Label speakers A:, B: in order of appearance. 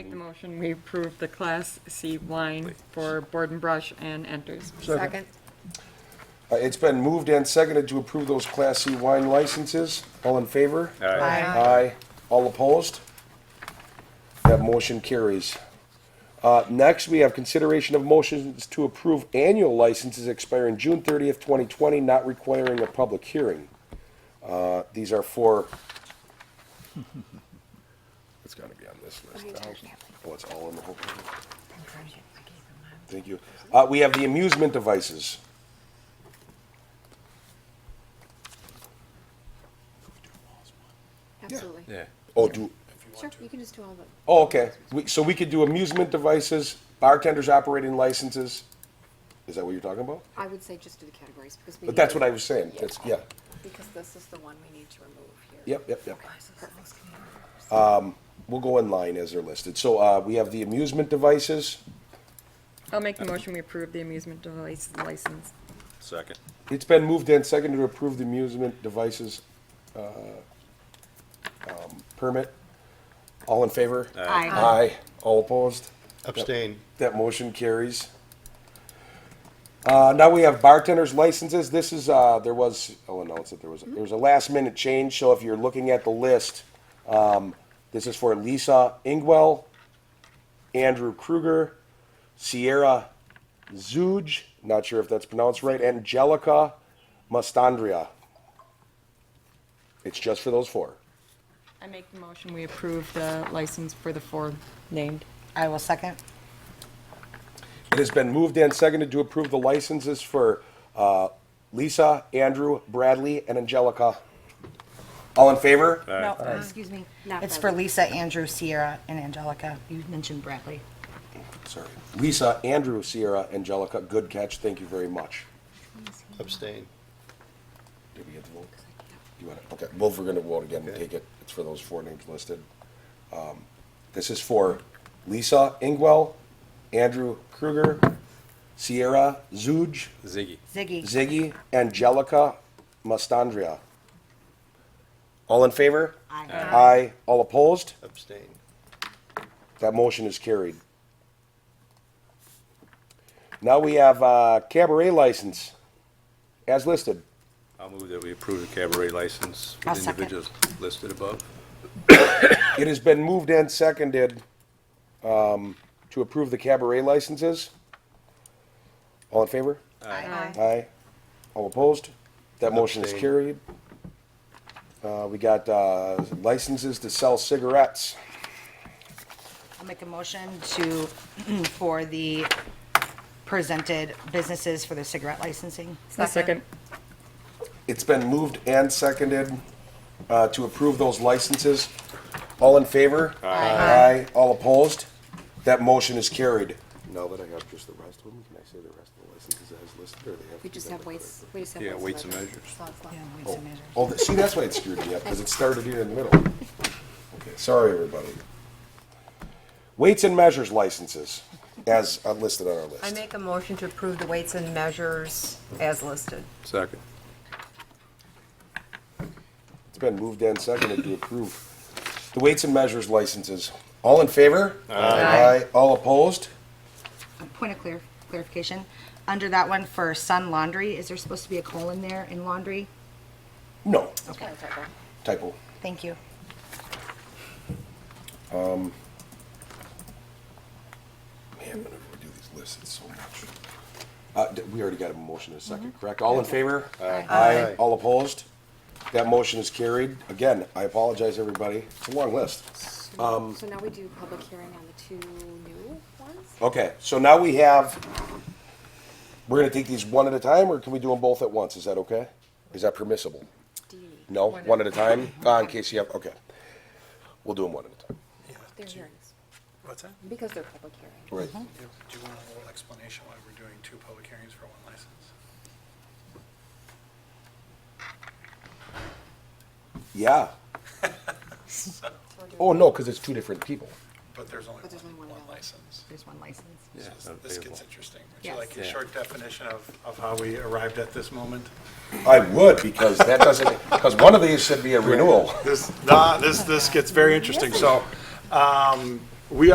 A: motion, we approve the Class C wine for Board and Brush and Enters.
B: Second.
C: Uh, It's been moved and seconded to approve those Class C wine licenses. All in favor?
B: Aye.
C: Aye. All opposed? That motion carries. Uh, Next, we have consideration of motions to approve annual licenses expiring June 30th, 2020, not requiring a public hearing. Uh, These are for, it's got to be on this list. Oh, it's all in the whole. Thank you. Uh, We have the amusement devices.
B: Absolutely.
D: Yeah.
C: Oh, do,
B: Sure, you can just do all the,
C: Oh, okay. We, so we could do amusement devices, bartenders operating licenses. Is that what you're talking about?
B: I would say just do the categories because we.
C: But
B: need
C: that's
B: to-
C: what I was saying. That's, yeah.
B: Because this is the one we need to remove here.
C: Yep, yep, yep.
B: Perfect.
C: We'll go in line as they're listed. So, uh, we have the amusement devices.
A: I'll make the motion, we approve the amusement device license.
D: Second.
C: It's been moved and seconded to approve the amusement devices, uh, um, permit. All in favor?
B: Aye.
C: Aye. All opposed?
E: Abstain.
C: That motion carries. Uh, now we have bartenders licenses. This is, uh, there was, I'll announce it, there was, there was a last minute change, so if you're looking at the list, um, this is for Lisa Ingwell, Andrew Kruger, Sierra Zuge, not sure if that's pronounced right, Angelica Mastandria. It's just for those four.
A: I make the motion, we approve the license for the four named.
F: I will second.
C: It has been moved and seconded to approve the licenses for uh, Lisa, Andrew, Bradley, and Angelica. All in favor?
F: No, excuse me.
B: Not
F: It's for
B: Bradley.
F: Lisa, Andrew, Sierra, and Angelica. You mentioned Bradley.
C: Sorry. Lisa, Andrew, Sierra, Angelica, good catch, thank you very much.
E: Abstain.
C: Did we get the vote? You want to, okay, well, we're going to vote again and take it, it's for those four names listed. Um, This is for Lisa Ingwell, Andrew Kruger, Sierra Zuge,
D: Ziggy.
F: Ziggy.
C: Ziggy, Angelica, Mastandria. All in favor?
F: Aye.
C: Aye. All opposed?
E: Abstain.
C: That motion is carried. Now we have uh, cabaret license, as listed.
D: I'll move that we approve the cabaret license for
F: I'll
D: the
F: second.
D: individuals listed above.
C: It has been moved and seconded um, to approve the cabaret licenses. All in favor?
F: Aye.
C: Aye. All opposed? That motion is
E: Abstain.
C: carried. Uh, We got uh, licenses to sell cigarettes.
F: I'll make a motion to, for the presented businesses for their cigarette licensing.
A: Second.
C: It's been moved and seconded uh, to approve those licenses. All in favor? Aye. All opposed? That motion is carried. Now that I have just the rest of them, can I say the rest of the licenses as listed, or they have? to be
B: We just
C: done
B: have
C: by
B: weights, we just have.
D: Yeah, weights and measures.
B: Slots left.
F: Yeah, we
C: clerk?
F: have to measure.
C: Oh, th- see, that's why it screwed me up, because it started here in the middle. Okay, sorry, everybody. Weights and measures licenses, as uh, listed on our list.
G: I make a motion to approve the weights and measures as listed.
D: Second.
C: It's been moved and seconded to approve the weights and measures licenses. All in favor? Aye. All opposed?
F: Point of clar- clarification, under that one for Sun Laundry, is there supposed to be a colon there in laundry?
C: No.
F: Okay,
C: Typo.
F: thank you.
C: Man, whenever we do these lists, it's so much. Uh, d- we already got a motion in a second, correct? All in favor? Aye. Aye. All opposed? That motion is carried. Again, I apologize, everybody. It's a long list. Um,
B: So now we do public hearing on the two new ones?
C: Okay, so now we have, we're gonna take these one at a time, or can we do them both at once? Is that okay? Is that permissible?
B: Do you need,
C: No, one at a time? Uh, in case you have, okay. We'll do them one at a time.
B: they're hearings,
H: What's that?
B: because they're public hearings.
C: Right.
H: Do do you want a little explanation why we're doing two public hearings for one license?
C: Yeah. Oh, no, because it's two different people.
H: But there's only
B: But there's only one
H: one, one
B: ballot.
H: license.
F: There's one license.
D: Yeah,
H: This-
D: not
H: This
D: available.
H: gets interesting. Would you
B: Yes.
H: like a
D: Yeah.
H: short definition of, of how we arrived at this moment?
C: I would, because that doesn't, because one of these should be a renewal.
H: This, nah, this, this gets very interesting. So, um,